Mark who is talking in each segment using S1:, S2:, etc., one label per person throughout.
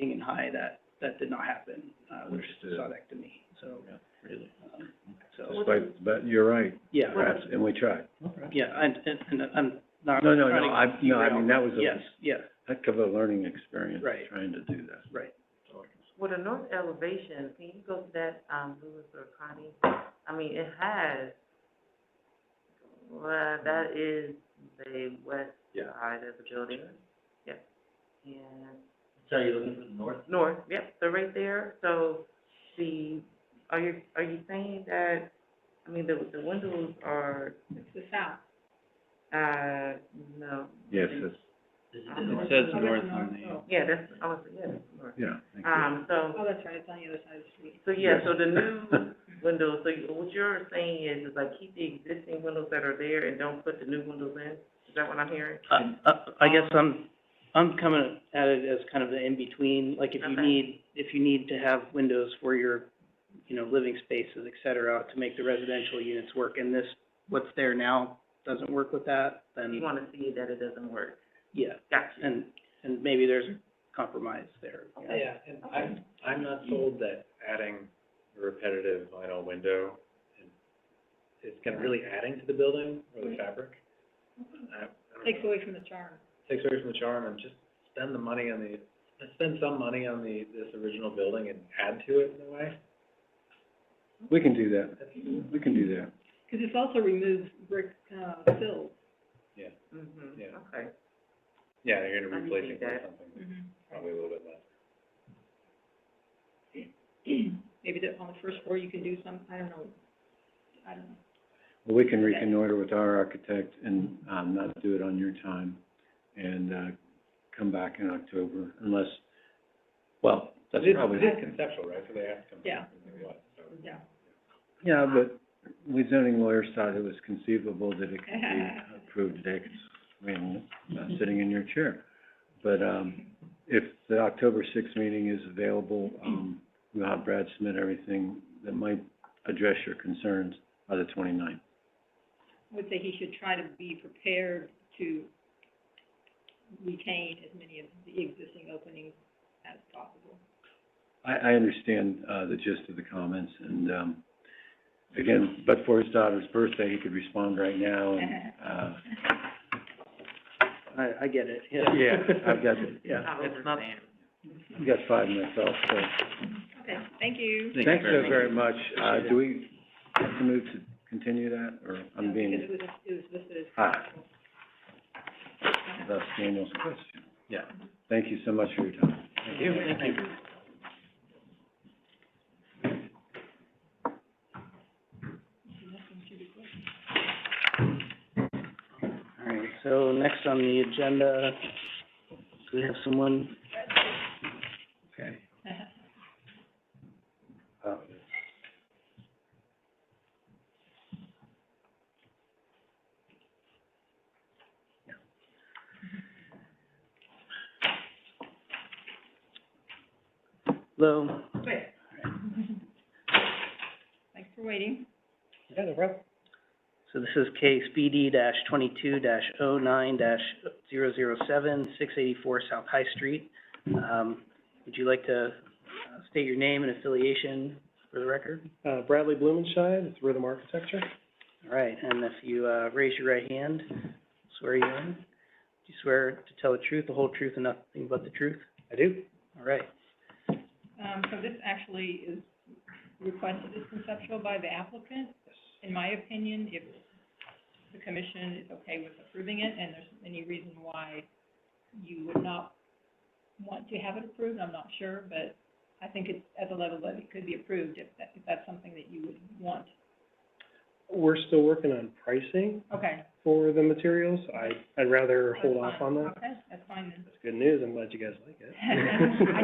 S1: and high, that, that did not happen, uh, with
S2: Understood.
S1: sodectomy, so,
S2: Really?
S1: um, so,
S2: Despite, but you're right,
S1: yeah,
S2: perhaps, and we tried.
S1: yeah, and, and, and I'm not
S2: No, no,
S1: trying
S2: no,
S1: to
S2: I, no, I mean, that was
S1: Yes,
S2: a
S1: yeah,
S2: heck of a learning experience,
S1: Right.
S2: trying to do that.
S1: right.
S3: With a north elevation, can you go to that, um, Lewis or Connie? I mean, it has, well, that is the west
S2: Yeah.
S3: side of the building. Yep. And,
S4: So you're looking for the north?
S3: north, yep, so right there, so the, are you, are you saying that, I mean, the, the windows are,
S5: the south.
S3: uh, no.
S2: Yes, it's,
S4: Is
S3: I don't
S4: it-
S3: know.
S4: it
S3: says north
S5: on the.
S3: Yeah, that's, I was, yeah, that's north.
S2: yeah, thank you.
S3: Um, so.
S5: Oh, that's right, it's on the other side of the street.
S3: So, yeah,
S2: Yes.
S3: so the new windows, so you- what you're saying is, is like keep the existing windows that are there and don't put the new windows in? Is that what I'm hearing?
S1: Uh, uh, I guess I'm, I'm coming at it as kind of the in-between, like if you
S3: Okay.
S1: need, if you need to have windows for your, you know, living spaces, et cetera, to make the residential units work, and this, what's there now doesn't work with that,
S3: You
S1: then,
S3: wanna see that it doesn't work.
S1: yeah,
S3: Got you.
S1: and, and maybe there's a compromise there.
S3: Okay.
S6: Yeah, and I'm, I'm not sold that adding a repetitive vinyl window is gonna really adding to the building or
S3: Mm-hmm.
S6: the fabric. I, I don't
S5: Takes
S6: know.
S5: away from the charm.
S6: Takes away from the charm and just spend the money on the, spend some money on the, this original building and add to it in a way.
S2: We can do that, we can do that.
S5: Cause this also removes brick, uh, sills.
S3: Mhm,
S6: Yeah.
S3: okay.
S6: Yeah, you're
S3: I
S6: gonna
S3: can
S6: replace
S3: see
S6: it with
S3: that.
S6: something probably a little bit less.
S5: Maybe that on the first floor you can do some, I don't know, I don't know.
S2: Well, we can
S5: Okay.
S2: reconnoiter with our architect and, um, not do it on your time and, uh, come back in October unless, well, that's
S6: It is-
S2: probably.
S6: It is conceptual, right, so they have to come
S5: Yeah.
S6: back and they what, so.
S5: Yeah.
S2: Yeah, but we zoning lawyers thought it was conceivable that it could be approved today, 'cause we am not sitting in your chair. But, um, if the October sixth meeting is available, um, we'll have Brad submit everything that might address your concerns by the 29th.
S5: I would say he should try to be prepared to retain as many of the existing openings as possible.
S2: I, I understand, uh, the gist of the comments and, um, again, but for his daughter's birthday, he could respond right now and, uh,
S1: I, I get it, yeah.
S2: yeah, I've got, the- yeah,
S3: I understand.
S2: I've got five myself, so.
S5: Okay, thank you.
S2: Thanks so very much. Uh, do we have to move to continue that, or I'm being,
S5: Because it was, it was listed as
S2: Ah.
S5: possible.
S2: that's Daniel's question. Yeah. Thank you so much for your time.
S6: Thank you. Thank you.
S1: All right, so next on the agenda, do we have someone? Okay.
S7: Uh,
S1: Um, Hello?
S5: Thanks for waiting.
S1: So this is case BD dash twenty-two dash oh nine dash zero zero seven, six eighty-four South High Street. Um, would you like to uh, state your name and affiliation for the record?
S7: Uh, Bradley Blumenscheid, it's Rhythm Architecture.
S1: All right, and if you, uh, raise your right hand, swear you in. Do you swear to tell the truth, the whole truth, and nothing but the truth?
S7: I do.
S1: All right,
S5: Um, so this actually is requested as conceptual by the applicant. In my opinion, if the commission is okay with approving it and there's any reason why you would not want to have it approved, I'm not sure, but I think it's at the level that it could be approved if that, if that's something that you would want.
S7: We're still working on pricing
S5: Okay.
S7: for the materials. I, I'd rather hold
S5: that's
S7: off
S5: fine.
S7: on that.
S5: Okay, that's fine then.
S7: That's good news. I'm glad you guys like it.
S5: I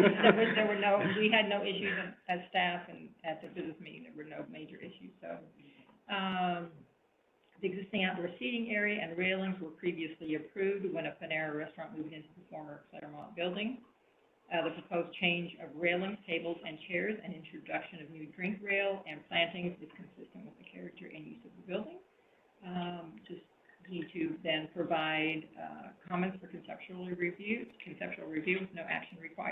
S5: just, there was, there were no, we had no issues in- as staff and at the business meeting, there were no major issues, so. Um, the existing outdoor seating area and railings were previously approved when a Panera restaurant moved into the former Claremont building. Uh, the proposed change of railings, tables, and chairs, and introduction of new drink rail and plantings is consistent with the character and use of the building. Um, just need to then provide, uh, comments for conceptual review, conceptual review with no action required.